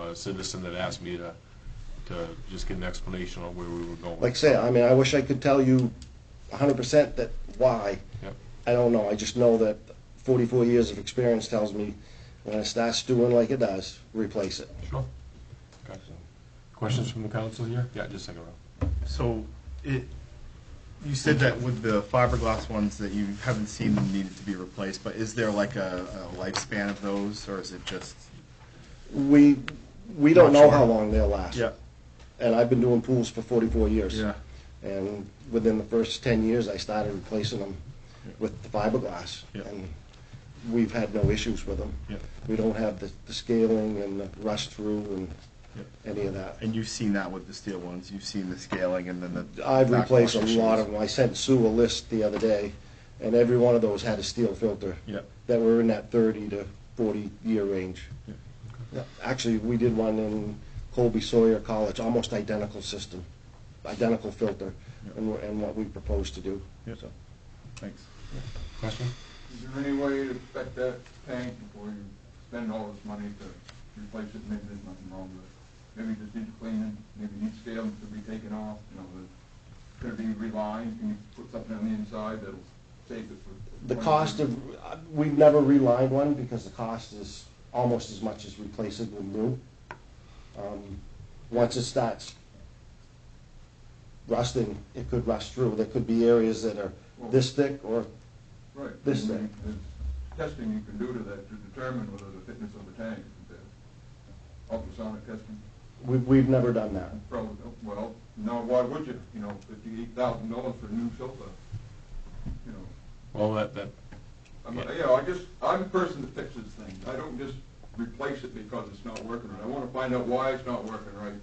a citizen that asked me to, to just get an explanation on where we were going. Like I say, I mean, I wish I could tell you hundred percent that why. Yep. I don't know. I just know that forty-four years of experience tells me when it starts doing like it does, replace it. Sure. Okay. Questions from the council here? Yeah, just a second row. So it, you said that with the fiberglass ones that you haven't seen them needed to be replaced, but is there like a, a lifespan of those, or is it just? We, we don't Not know sure. how long they'll last. And I've been doing pools for forty-four years. Yeah. And within the first ten years, I started replacing them Yeah. with the fiberglass. Yeah. And we've had no issues with them. Yeah. We don't have the the scaling and the rust through and Yeah. any of that. And you've seen that with the steel ones, you've seen the scaling and then the. I've backwash replaced a lot issues. of them. I sent Sue a list the other day, and every one of those had a steel filter Yeah, that were in that thirty to forty year range. Yeah. Yeah, Actually, we did one in Colby Sawyer College, almost identical system, identical filter, Yeah. and, we're- and what we propose to do. yeah, thanks. Question? Is there any way to affect that tank before you spend all this money to replace it? Maybe there's nothing wrong with it. Maybe it just needs cleaning, maybe it needs scaling to be taken off, you know, the, could it be relined? Can you put something on the inside that'll save it for? The cost of, uh, we've never relined one because the cost is almost as much as replacing with new. Um, Once it starts rusting, it could rust through. There could be areas that are this thick or, Right. this I mean, thing. there's Testing you can do to that to determine whether the fitness of the tank, is there. ultrasonic testing. we've, we've never done that. Probably, well, no, why would you? You know, fifty-eight thousand dollars for a new sofa, you know. Well, that, that, I'm, you know, I just, I'm the person that fixes things. I don't just replace it because it's not working right. I want to find out why it's not working right.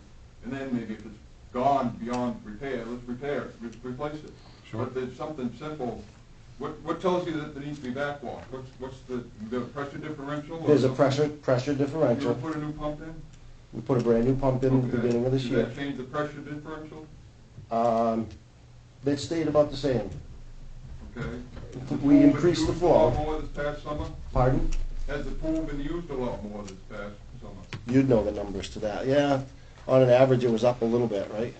And then maybe if it's gone beyond repair, let's repair it, re- replace it. Sure. But there's something simple. What, what tells you that there needs to be backwash? What's, what's the, the pressure differential? or There's a something? pressure, pressure You differential. don't put a new pump in? We put a brand-new pump in at Okay. the beginning of this Does year. that change the pressure differential? Um, That stayed about the same. Okay. We increased the Has the flow. pool been used a lot more this past summer? Pardon? Has the pool been used a lot more this past summer? You'd know the numbers to that. Yeah, on an average, it was up a little bit, right?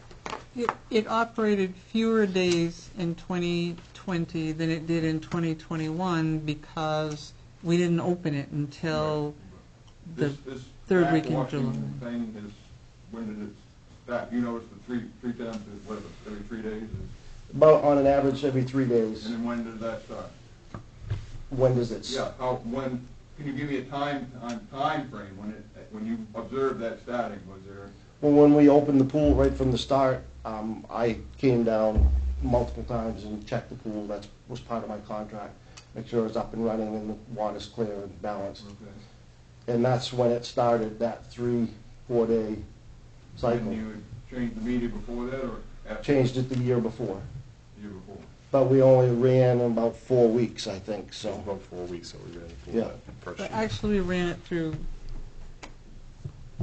It, it operated fewer days in 2020 than it did in 2021 because we didn't open it until the, This, this third week in July. backwashing thing is, when did it stop? You noticed the three, three times, is what, every three days? is- About on an average, every three days. And then when did that start? When does it? s- Yeah, how, when, can you give me a time, on frame when it, when you observed that starting? Was there, Well, when we opened the pool right from the start, um, I came down multiple times and checked the pool. That was part of my contract. Make sure it's up and running and the water's clear and balanced. okay. And that's when it started, that three, four-day Didn't cycle. you change the media before that or after Changed it the year before. the year before? But we only ran in about four weeks, I think, So so. about four weeks that we're gonna pull Yeah. that first but sheet. actually we ran it through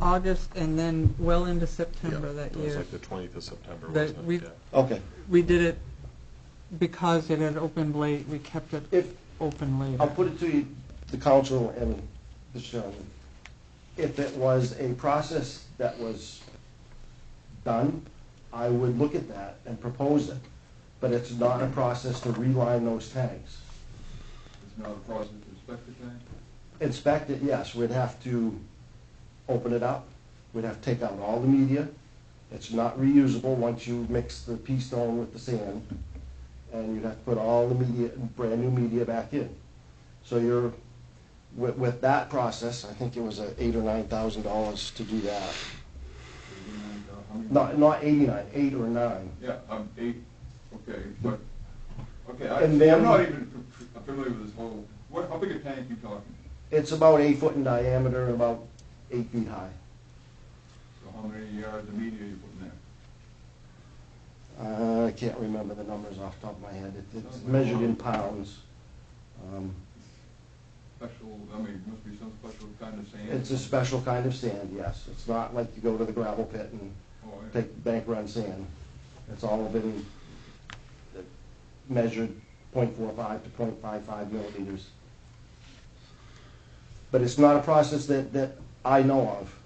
August and then well into September Yeah, that It was year. like the twentieth of September, That wasn't we- it? Yeah. Okay. We did it because it had opened late, we kept it If, open later. I'll put it to you, the council and the chairman. If it was a process that was done, I would look at that and propose it. But it's not a process to reline those tanks. It's not a process to inspect the tank? Inspect it, yes, we'd have to open it up, we'd have to take out all the media. It's not reusable once you mix the pea stone with the sand. And you'd have to put all the media, brand-new media back in. So you're, with, with that process, I think it was uh, eight or nine thousand dollars to do that. And, uh, how many- Not, not eighty-nine, eight or nine. Yeah, I'm eight, okay, but, okay, And I- then- I'm not even f- f- familiar with this whole, what, how big a tank you talking? It's about eight foot in diameter and about eight feet high. So how many yards of media you putting there? Uh, I can't remember the numbers off the top of my head. It- It's measured in pounds. Um, Special, I mean, must be some special kind of sand? It's a special kind of sand, yes. It's not like you go to the gravel pit and Oh, yeah. take bank run sand. It's all been uh, measured 0.45 to 0.55 millimeters. But it's not a process that, that I know of.